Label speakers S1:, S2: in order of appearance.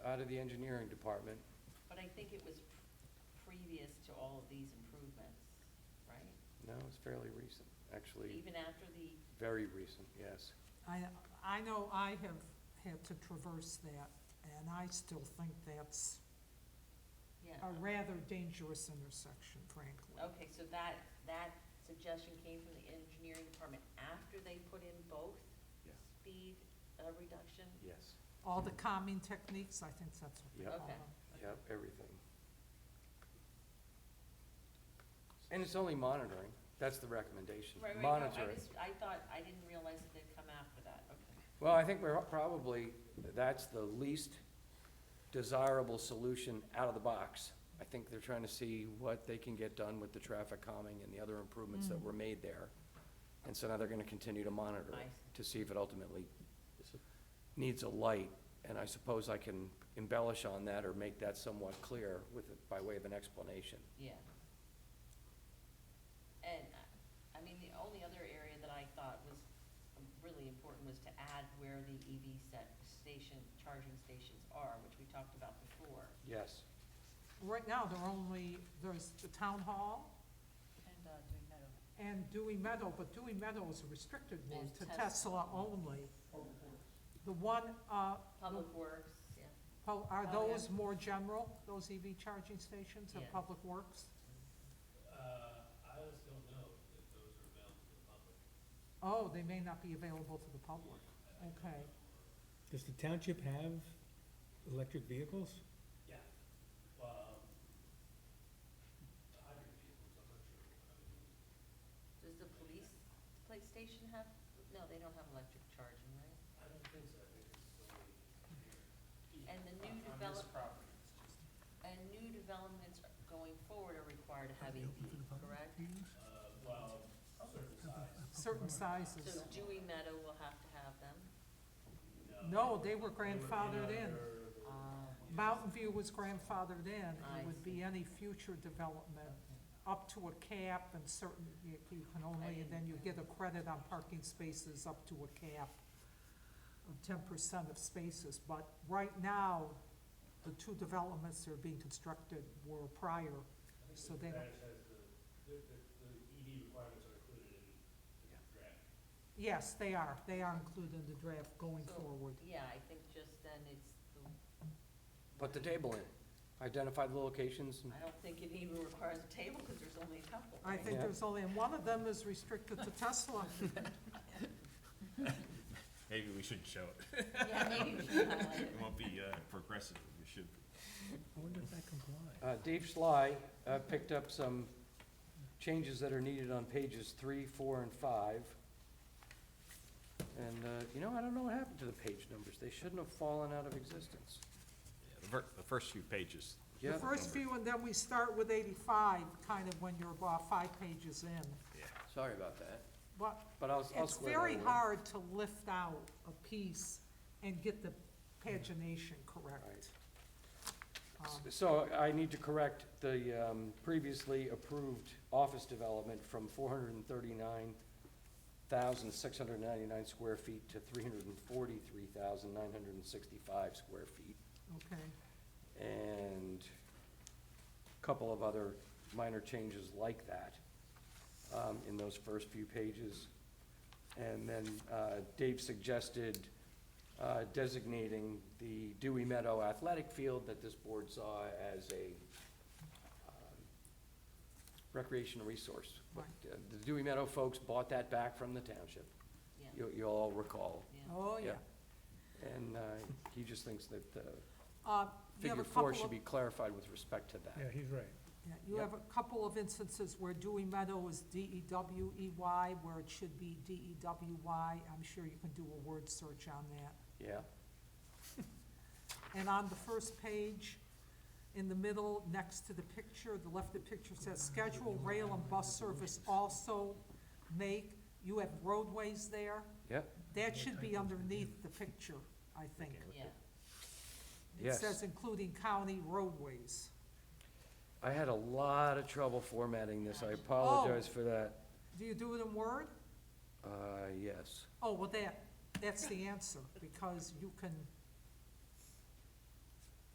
S1: out of the engineering department.
S2: But I think it was pr- previous to all of these improvements, right?
S1: No, it's fairly recent, actually,
S2: Even after the,
S1: very recent, yes.
S3: I, I know I have had to traverse that, and I still think that's
S2: yeah.
S3: a rather dangerous intersection, frankly.
S2: Okay, so that, that suggestion came from the engineering department after they put in both
S1: Yes.
S2: speed uh, reduction?
S1: Yes.
S3: All the calming techniques, I think that's what they
S1: Yep.
S3: call
S2: Okay.
S3: them.
S1: Yep, everything. And it's only monitoring, that's the recommendation,
S2: Right, right, no, I
S1: monitoring.
S2: just, I thought, I didn't realize that they'd come after that, okay.
S1: Well, I think we're probably, that's the least desirable solution out of the box. I think they're trying to see what they can get done with the traffic calming and the other improvements
S2: Mm.
S1: that were made there. And so now they're gonna continue to monitor
S2: I
S1: it,
S2: see.
S1: to see if it ultimately needs a light. And I suppose I can embellish on that or make that somewhat clear with, by way of an explanation.
S2: Yeah. And, uh, I mean, the only other area that I thought was um, really important was to add where the EV set station, charging stations are, which we talked about before.
S1: Yes,
S3: Right now, they're only, there's the town hall
S2: And, uh, doing that
S3: and Dewey Meadow, but Dewey Meadow is a restricted one
S2: There's
S3: to
S2: Tesla.
S3: Tesla only. The one, uh,
S2: Public Works, yeah.
S3: po- are
S2: Oh, yeah.
S3: those more general, those EV charging stations or
S2: Yeah.
S3: public works?
S4: Uh, I just don't know if those are available to the public.
S3: Oh, they may not be available to the public, okay.
S5: Does the township have electric vehicles?
S4: Yeah. Well, a hundred vehicles, I'm not sure. I mean,
S2: Does the police, police station have, no, they don't have electric charging, right?
S4: I don't think so, I think it's only here.
S2: And the new
S4: On- On this
S2: develop-
S4: property, it's just,
S2: And new developments going forward are required to have EV, correct?
S4: uh, well, certain size,
S2: So
S3: Certain sizes.
S2: Dewey Meadow will have to have them.
S3: No, they were
S4: They would be
S3: grandfathered in.
S4: under the-
S2: Uh,
S3: Mountain View was grandfathered in.
S2: I
S3: It would
S2: see.
S3: be any future development up to a cap and certain, you you can only, and then you get a credit on parking spaces up to a cap of ten percent of spaces. But right now, the two developments that are being constructed were prior.
S4: I
S3: So
S4: think the
S3: they don't-
S4: Spanish has the, the, the the EV requirements are included in the draft.
S3: Yes, they are. They are included in the draft going
S2: So-
S3: forward.
S2: Yeah, I think just then it's the.
S1: put the table in, identify the locations and
S2: I don't think it even requires a table, because there's only a couple.
S3: I
S2: right?
S3: think
S1: Yeah.
S3: there's only, and one of them is restricted to Tesla.
S6: Maybe we should show it.
S2: Yeah, maybe we should highlight it.
S6: It won't be uh, progressive, we should.
S5: I wonder if that complies.
S1: Uh, Dave Schley, uh, picked up some changes that are needed on pages three, four, and five. And, uh, you know, I don't know what happened to the page numbers, they shouldn't have fallen out of existence.
S6: The ver- the first few pages.
S3: The
S1: Yeah.
S3: first few, and then we start with eighty-five, kind of when you're about five pages in.
S6: Yeah.
S1: Sorry about that,
S3: But
S1: but I'll, I'll
S3: it's
S1: square that away.
S3: very hard to lift out a piece and get the pagination correct. Um,
S1: So I need to correct the, um, previously approved office development from four hundred and thirty-nine thousand, six hundred and ninety-nine square feet to three hundred and forty-three thousand, nine hundred and sixty-five square feet.
S3: Um, Okay,
S1: and a couple of other minor changes like that um, in those first few pages. And then uh, Dave suggested uh, designating the Dewey Meadow Athletic Field that this board saw as a um, recreational resource. But, uh, The Dewey Meadow folks bought that back from the township,
S2: Yeah,
S1: you you all recall.
S2: yeah.
S3: oh, yeah.
S1: And uh, he just thinks that uh,
S3: Uh, you have
S1: figure
S3: a
S1: four
S3: couple
S1: should
S3: of-
S1: be clarified with respect to that.
S5: Yeah, he's right.
S3: yeah, You
S1: Yep.
S3: have a couple of instances where Dewey E Meadow is D-E-W-E-Y, where it should be D-E-W-Y. I'm sure you can do a word search on that.
S1: Yeah,
S3: And on the first page, in the middle, next to the picture, the left of the picture says, schedule rail and bus service also make, you have roadways there.
S1: yeah,
S3: That should be underneath the picture, I think.
S2: Yeah,
S3: It
S1: Yes.
S3: says including county roadways.
S1: I had a lot of trouble formatting this, I apologize
S3: Oh.
S1: for that.
S3: Do you do it in Word?
S1: Uh, yes,
S3: Oh, well, that, that's the answer, because you can